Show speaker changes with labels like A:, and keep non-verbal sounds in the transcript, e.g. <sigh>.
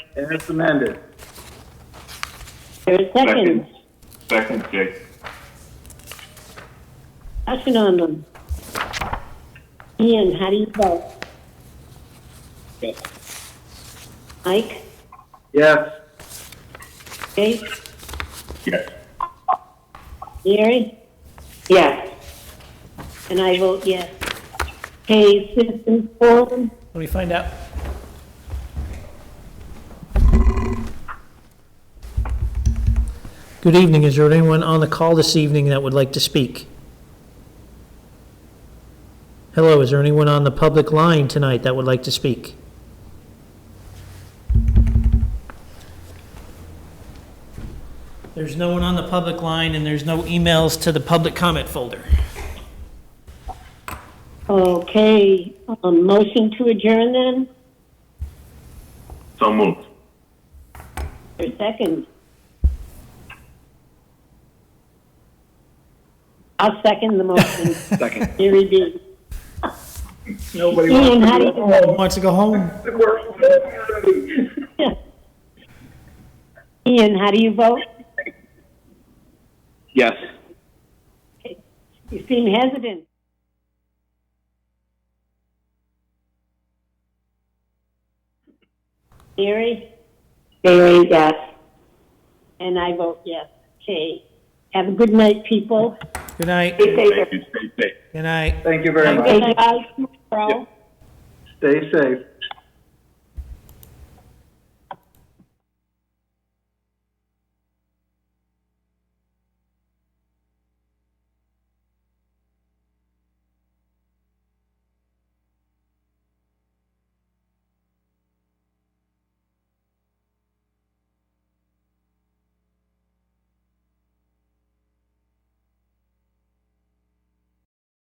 A: As amended.
B: There are seconds.
C: Second, Jake.
B: Action on them. Ian, how do you vote? Mike,
A: Yes.
B: Jake,
C: Yes.
B: Mary? Yes. And I vote yes. Okay, citizens forum,
D: Let me find out. Good evening. Is there anyone on the call this evening that would like to speak? Hello, is there anyone on the public line tonight that would like to speak? There's no one on the public line, and there's no emails to the public comment folder.
B: okay, um, motion to adjourn then,
C: So moved.
B: or second? I'll second the motion.
A: Second.
B: Mary B.
A: Nobody
B: Ian,
A: wants
B: how do you vote?
D: Wants to go home?
A: to work.
B: <laughs> Ian, how do you vote?
A: Yes.
B: You seem hesitant. Mary? Mary, yes. And I vote yes. Okay. Have a good night, people.
D: Good night.
C: Thank you. Stay safe.
D: Good night.
A: Thank you very
B: Okay,
A: much.
B: guys, tomorrow.
A: Stay safe.